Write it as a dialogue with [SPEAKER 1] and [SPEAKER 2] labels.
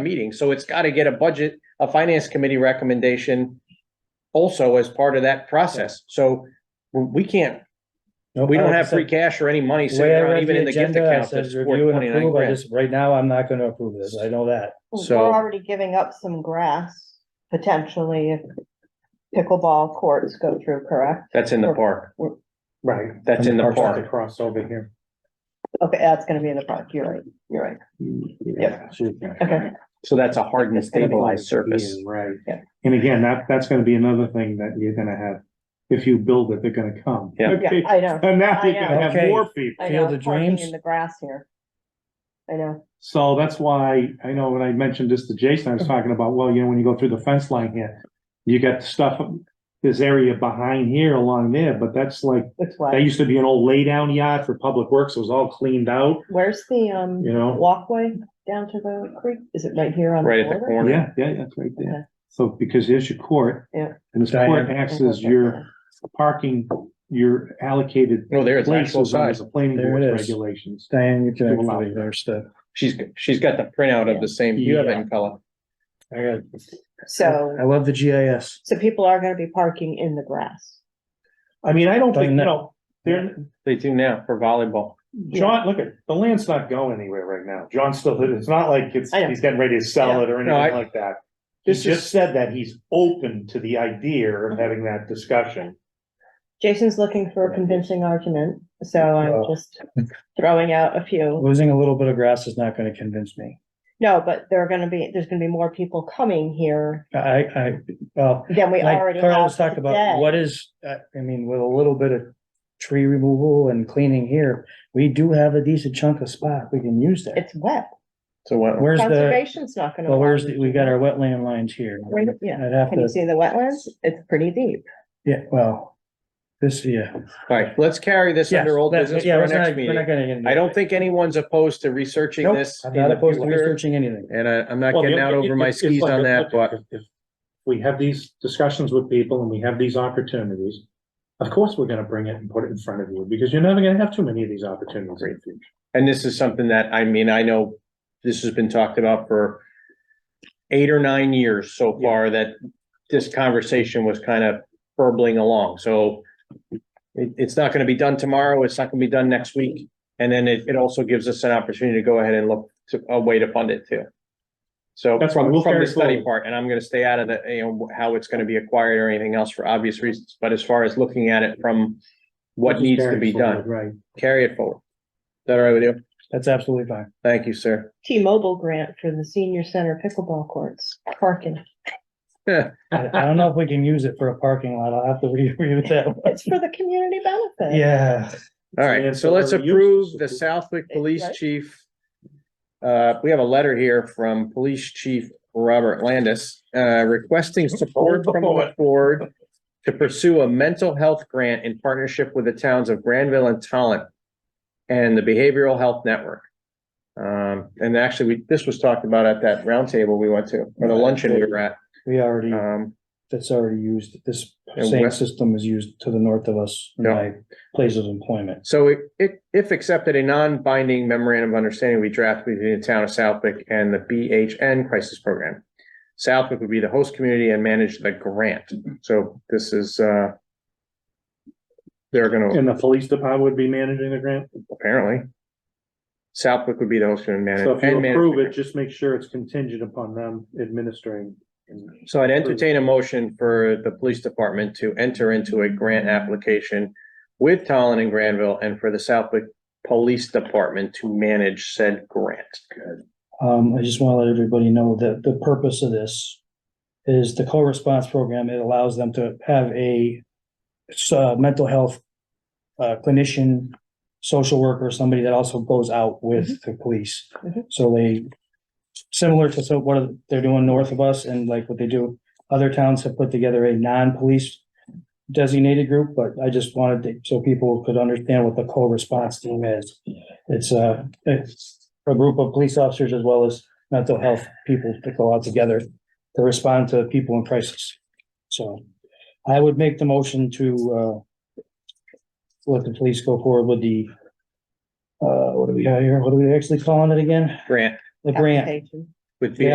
[SPEAKER 1] meeting, so it's gotta get a budget, a finance committee recommendation also as part of that process, so we can't, we don't have free cash or any money sitting around even in the gift account to support twenty-nine grand.
[SPEAKER 2] Right now, I'm not gonna approve this. I know that.
[SPEAKER 1] So-
[SPEAKER 3] We're already giving up some grass potentially if pickleball courts go through, correct?
[SPEAKER 1] That's in the park,
[SPEAKER 4] Right.
[SPEAKER 1] That's in the
[SPEAKER 4] And park's
[SPEAKER 1] park.
[SPEAKER 4] Across over here.
[SPEAKER 3] Okay, that's gonna be in the park. You're right. You're right.
[SPEAKER 1] Mm,
[SPEAKER 4] Yeah.
[SPEAKER 3] Okay.
[SPEAKER 1] so that's a hard and stabilized surface.
[SPEAKER 4] Right.
[SPEAKER 3] Yeah.
[SPEAKER 4] And again, that, that's gonna be another thing that you're gonna have, if you build it, they're gonna come.
[SPEAKER 1] Yeah.
[SPEAKER 3] Yeah, I know.
[SPEAKER 4] And now you're
[SPEAKER 3] I know.
[SPEAKER 4] gonna have
[SPEAKER 2] Okay.
[SPEAKER 4] more people.
[SPEAKER 3] I
[SPEAKER 2] Field
[SPEAKER 3] know,
[SPEAKER 2] of
[SPEAKER 3] parking
[SPEAKER 2] dreams.
[SPEAKER 3] in the grass here. I know.
[SPEAKER 4] So that's why, I know when I mentioned this to Jason, I was talking about, well, you know, when you go through the fence line here, you got stuff, this area behind here along there, but that's like,
[SPEAKER 3] It's
[SPEAKER 4] that
[SPEAKER 3] wet.
[SPEAKER 4] used to be an old laydown yard for public works. It was all cleaned out,
[SPEAKER 3] Where's the, um,
[SPEAKER 4] you know?
[SPEAKER 3] walkway down to the creek? Is it right here on?
[SPEAKER 1] Right at the
[SPEAKER 3] border?
[SPEAKER 1] corner.
[SPEAKER 4] Yeah, yeah, that's right
[SPEAKER 3] Okay.
[SPEAKER 4] there. So because there's your court.
[SPEAKER 3] Yeah.
[SPEAKER 4] And this court
[SPEAKER 2] Diagonal.
[SPEAKER 4] acts as your parking, your allocated
[SPEAKER 1] No, there it's actual
[SPEAKER 4] places under
[SPEAKER 1] size.
[SPEAKER 4] the planning
[SPEAKER 2] There
[SPEAKER 4] board
[SPEAKER 2] it is.
[SPEAKER 4] regulations.
[SPEAKER 2] Diane, you can
[SPEAKER 4] Do allow
[SPEAKER 2] actually reverse that.
[SPEAKER 1] She's, she's got the printout of the same, you have it
[SPEAKER 2] Yeah.
[SPEAKER 1] in color.
[SPEAKER 2] I got, I
[SPEAKER 3] So,
[SPEAKER 2] love the GIS.
[SPEAKER 3] so people are gonna be parking in the grass.
[SPEAKER 4] I mean, I don't think,
[SPEAKER 2] Doesn't
[SPEAKER 4] you
[SPEAKER 2] that-
[SPEAKER 4] know, they're,
[SPEAKER 1] They do now for volleyball.
[SPEAKER 4] John, look at, the land's not going anywhere right now. John's still, it's not like it's,
[SPEAKER 3] I know.
[SPEAKER 4] he's getting ready to sell it or
[SPEAKER 1] No, I-
[SPEAKER 4] anything like that. He
[SPEAKER 1] This
[SPEAKER 4] just said that he's open to the idea of
[SPEAKER 3] Mm-hmm.
[SPEAKER 4] having that discussion.
[SPEAKER 3] Jason's looking for a convincing argument, so I'm
[SPEAKER 4] Uh,
[SPEAKER 2] Well.
[SPEAKER 3] just throwing out a few.
[SPEAKER 2] Losing a little bit of grass is not gonna convince me.
[SPEAKER 3] No, but there are gonna be, there's gonna be more people coming here
[SPEAKER 2] I, I, well,
[SPEAKER 3] than we
[SPEAKER 2] like
[SPEAKER 3] already have
[SPEAKER 2] Carlos talked
[SPEAKER 3] today.
[SPEAKER 2] about, what is, uh, I mean, with a little bit of tree removal and cleaning here, we do have a decent chunk of spot we can use there.
[SPEAKER 3] It's wet.
[SPEAKER 1] So uh, what,
[SPEAKER 2] Where's the,
[SPEAKER 3] Conservation's not gonna.
[SPEAKER 2] well, where's,
[SPEAKER 3] allow
[SPEAKER 2] the
[SPEAKER 3] you
[SPEAKER 2] we
[SPEAKER 3] to
[SPEAKER 2] got
[SPEAKER 3] do
[SPEAKER 2] our wetland lines here.
[SPEAKER 3] Right, yeah.
[SPEAKER 2] I'd
[SPEAKER 3] that.
[SPEAKER 2] have
[SPEAKER 3] Can you
[SPEAKER 2] to,
[SPEAKER 3] see the wetlands? It's pretty deep.
[SPEAKER 2] yeah, well, this, yeah.
[SPEAKER 1] all right, let's carry this
[SPEAKER 2] Yes,
[SPEAKER 1] under old
[SPEAKER 2] that-
[SPEAKER 1] business for
[SPEAKER 2] yeah,
[SPEAKER 1] our
[SPEAKER 2] we're not-
[SPEAKER 1] next
[SPEAKER 2] we're not
[SPEAKER 1] meeting.
[SPEAKER 2] gonna get into
[SPEAKER 1] I
[SPEAKER 2] it.
[SPEAKER 1] don't think anyone's opposed to researching
[SPEAKER 2] Nope,
[SPEAKER 1] this.
[SPEAKER 2] I'm
[SPEAKER 1] in
[SPEAKER 2] not
[SPEAKER 1] the
[SPEAKER 2] opposed to
[SPEAKER 1] future,
[SPEAKER 2] researching anything.
[SPEAKER 1] And I, I'm not getting out over my skis on that, but
[SPEAKER 4] We have these discussions with people and we have these opportunities. Of course, we're gonna bring it and put it in front of you, because you're never gonna have too many of these opportunities in the future.
[SPEAKER 1] And this is something that, I mean, I know this has been talked about for eight or nine years so far that this conversation was kind of burbling along. So it, it's not going to be done tomorrow. It's not going to be done next week. And then it, it also gives us an opportunity to go ahead and look to a way to fund it too. So
[SPEAKER 4] That's fine.
[SPEAKER 1] from,
[SPEAKER 4] We'll
[SPEAKER 1] from
[SPEAKER 4] carry
[SPEAKER 1] the study
[SPEAKER 4] forward.
[SPEAKER 1] part, and I'm going to stay out of the, you know, how it's going to be acquired or anything else for obvious reasons. But as far as looking at it from what
[SPEAKER 4] Just
[SPEAKER 1] needs to
[SPEAKER 4] carry
[SPEAKER 1] be
[SPEAKER 4] forward,
[SPEAKER 1] done,
[SPEAKER 4] Right.
[SPEAKER 1] carry it forward. Is that all right with you?
[SPEAKER 2] That's absolutely fine.
[SPEAKER 1] Thank you, sir.
[SPEAKER 3] T-Mobile grant for the senior center pickleball courts, parking.
[SPEAKER 2] I I don't know if we can use it for a parking lot. I'll have to re- review that. one.
[SPEAKER 3] It's for the community benefit.
[SPEAKER 2] Yeah,
[SPEAKER 1] All right, so let's
[SPEAKER 4] Ancillary
[SPEAKER 1] approve
[SPEAKER 4] uses.
[SPEAKER 1] the Southwick Police
[SPEAKER 3] Right.
[SPEAKER 1] Chief. Uh, we have a letter here from Police Chief Robert Landis, uh, requesting support from the board to pursue a mental health grant in partnership with the towns of Granville and Talent and the Behavioral Health Network. Um, and actually, we, this was talked about at that roundtable we went to, or the luncheon we were at.
[SPEAKER 2] we already,
[SPEAKER 1] Um,
[SPEAKER 2] that's already used. This
[SPEAKER 1] And
[SPEAKER 2] same
[SPEAKER 1] West-
[SPEAKER 2] system is used to the north of us, in
[SPEAKER 1] Yeah.
[SPEAKER 2] my place of employment.
[SPEAKER 1] So it, it, if accepted, a non-binding memorandum of understanding we draft between the town of Southwick and the BHN crisis program. Southwick would be the host community and manage the grant. So this is, uh, they're gonna,
[SPEAKER 4] And the police department would be managing the grant?
[SPEAKER 1] apparently. Southwick would be the host community. and
[SPEAKER 4] So if
[SPEAKER 1] manage- and
[SPEAKER 4] you
[SPEAKER 1] manage
[SPEAKER 4] approve
[SPEAKER 1] the
[SPEAKER 4] it, just make sure it's contingent upon them administering. and-
[SPEAKER 1] So I'd entertain a motion for the police department to enter into a grant application with Tallinn and Granville and for the Southwick Police Department to manage said grant.
[SPEAKER 2] Um, I just want to let everybody know that the purpose of this is the co-response program. It allows them to have a s- uh, mental health uh, clinician, social worker, somebody that also goes out with the police.
[SPEAKER 3] Mhm.
[SPEAKER 2] So they, similar to so what they're doing north of us and like what they do, other towns have put together a non-police designated group, but I just wanted to, so people could understand what the co-response team is. It's uh, a, it's a group of police officers as well as mental health people that go out together to respond to people in crisis. So I would make the motion to, uh, let the police go forward with the, uh, what do we got here? What are we actually calling it again?
[SPEAKER 1] Grant
[SPEAKER 2] The grant.
[SPEAKER 3] Application.
[SPEAKER 1] with
[SPEAKER 2] Yeah.